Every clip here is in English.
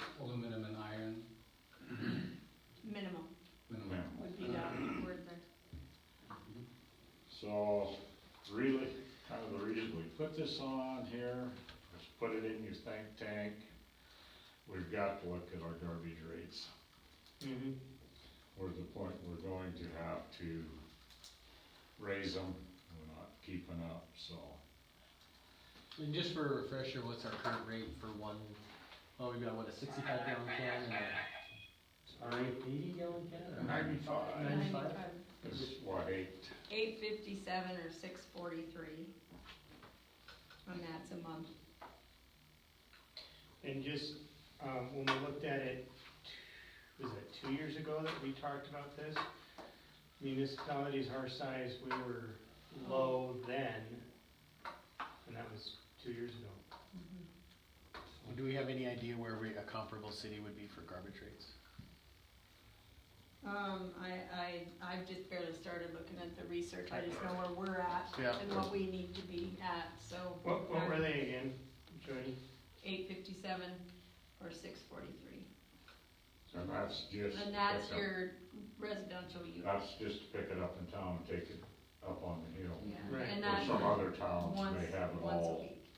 Uh-huh. put this on here, let's put it in your think tank. We've got to look at our garbage rates. Mm-hmm. Mhm. We're at the point we're going to have to raise them, we're not keeping up, so. And just for a refresher, what's our current rate for one, oh, we've got what, a sixty-five gallon can and a, or an eighty gallon can? or- Ninety-five Ninety-five? is what eight, uh, Eight fifty-seven or six forty-three. And that's a month. And just, um, when we looked at it, was it two years ago that we talked about this? Municipalities our size, we were low then, and that was two years ago. Mm-hmm. Do we have any idea where we, a comparable city would be for garbage rates? Um, I, I, I've just barely started looking at the research, I just know where we're at Yeah. and what we need to be at, so. What, what were they again, Jody? Eight fifty-seven or six forty-three. and that's just. And that's pick up- your residential use. That's just to pick it up in town and take it up on the hill. Yeah. Right. And Or that's some other towns once, may have it once a all, week.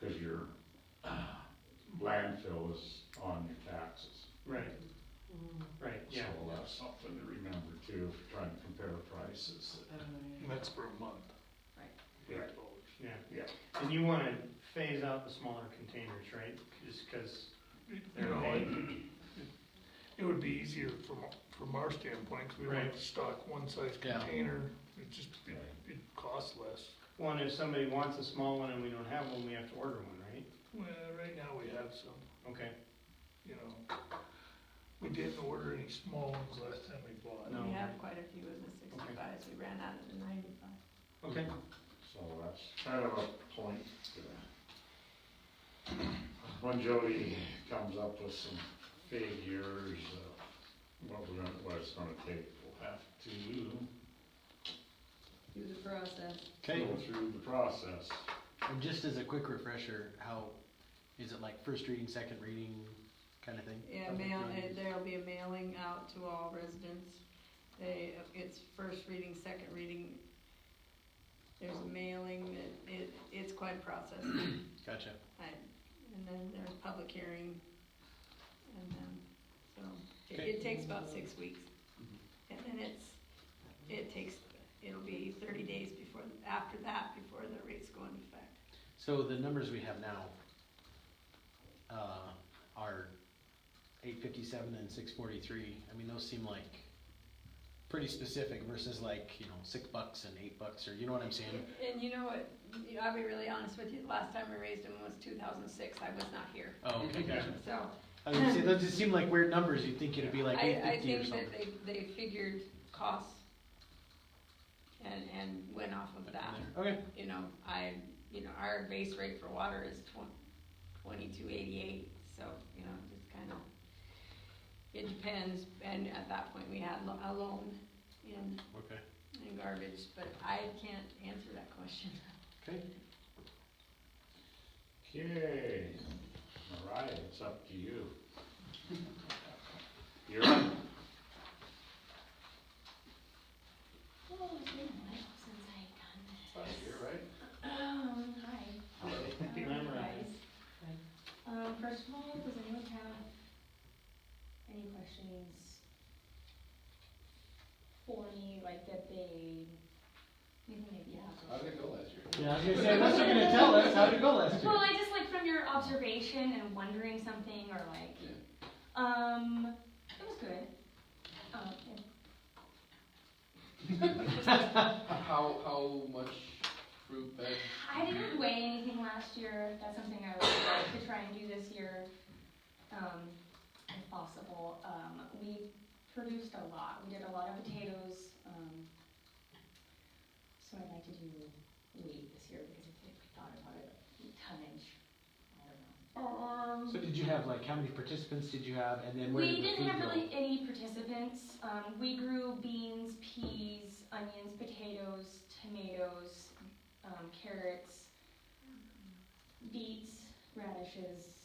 cause your uh, landfill is on your taxes. Right, right, So yeah. that's something to remember too, if you're trying to compare prices. That's for a month. Right. Yeah. Yeah. Yeah. And you wanna phase out the smaller containers, right? Just cause You they're know, big. it- it would be easier from, from our standpoint, cause we don't have to stock one size Yeah. container, it just, it, it costs less. One, if somebody wants a small one and we don't have one, we have to order one, right? Well, right now we have some, Okay, you know, we didn't order any small ones last time we bought. No. We have quite a few of the sixty-fives, we ran out of the ninety-five. okay. So that's kind of a point. uh, When Jody comes up with some figures, uh, what we're gonna, what it's gonna take, we'll have to Do the process. Okay, go through the process. and just as a quick refresher, how, is it like first reading, second reading kind of thing? Yeah, Okay, mail, good. uh, there'll be a mailing out to all residents. They, it's first reading, second reading. There's a mailing, it, it, it's quite a process. Gotcha. I- And then there's public hearing. And then, so, it, Okay. it takes about six weeks. And then it's, it takes, it'll be thirty days before, after that, before the rates go into effect. So the numbers we have now, uh, are eight fifty-seven and six forty-three, I mean, those seem like pretty specific versus like, you know, six bucks and eight bucks, or you know what I'm saying? And you know what, You- I'll be really honest with you, the last time we raised them was two thousand six, I was not here. Oh, okay, gotcha. So, I was gonna say, those just seem like weird numbers, you'd think it'd be like I, eight I fifty or think something. that they, they figured costs and, and went off of that. Okay, You know, I, you know, our base rate for water is twen- twenty-two eighty-eight, so, you know, just kind of, it depends, and at that point, we had lo- a loan in, okay, in garbage, but I can't answer that question. okay, Okay, all right, it's up to you. You're up. Oh, it's been a while since I've done You're right. that. Um, hi. Remember. Guys. Um, first of all, does anyone have any questions for me, like that they, maybe maybe you have. How did it go last year? yeah, I was gonna say, unless you're gonna tell us how to go last year. Well, I just like from your observation and wondering something or like, Yeah. um, it was good. Um, yeah. How, how much fruit bed? I didn't weigh anything last year. That's something I would like to try and do this year, um, if possible. Um, we produced a lot. We did a lot of potatoes, um, so I'd like to do wheat this year because if we thought about it, tonnage, I don't know. So did you have like, how many participants did you have, and then where We did the didn't food have go? really any participants. Um, we grew beans, peas, onions, potatoes, tomatoes, um, carrots, beets, radishes,